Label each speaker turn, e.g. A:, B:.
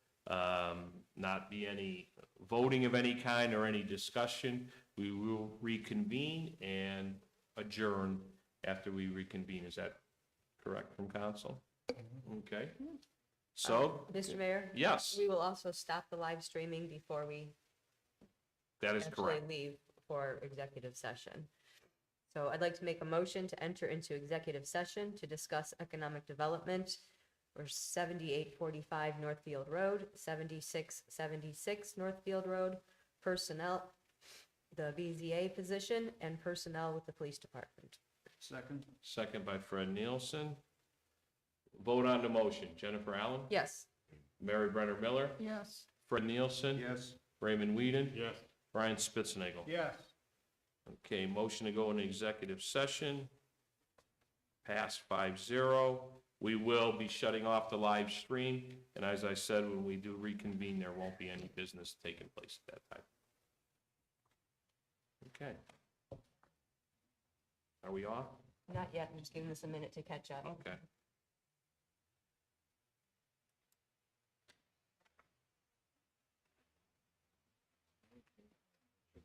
A: um, not be any voting of any kind or any discussion. We will reconvene and adjourn after we reconvene. Is that correct from council? Okay. So,
B: Mr. Mayor?
A: yes,
B: Uh, We will also stop the live streaming before we
A: that is
B: actually
A: correct.
B: leave for executive session. So I'd like to make a motion to enter into executive session to discuss economic development for seventy-eight forty-five Northfield Road, seventy-six seventy-six Northfield Road, personnel, the BZA position, and personnel with the police department.
C: Second?
A: Second by Fred Nielsen. Vote on the motion. Jennifer Allen?
B: Yes.
A: Mary Brenner Miller?
C: Yes.
A: Fred Nielsen?
C: Yes.
A: Raymond Whedon?
C: Yes.
A: Brian Spitznagel.
C: Yes.
A: Okay, motion to go into executive session. Pass five zero. We will be shutting off the live stream, and as I said, when we do reconvene, there won't be any business taking place at that time. Okay. Are we off?
B: Not yet, I'm just giving this a minute to catch up.
A: Okay.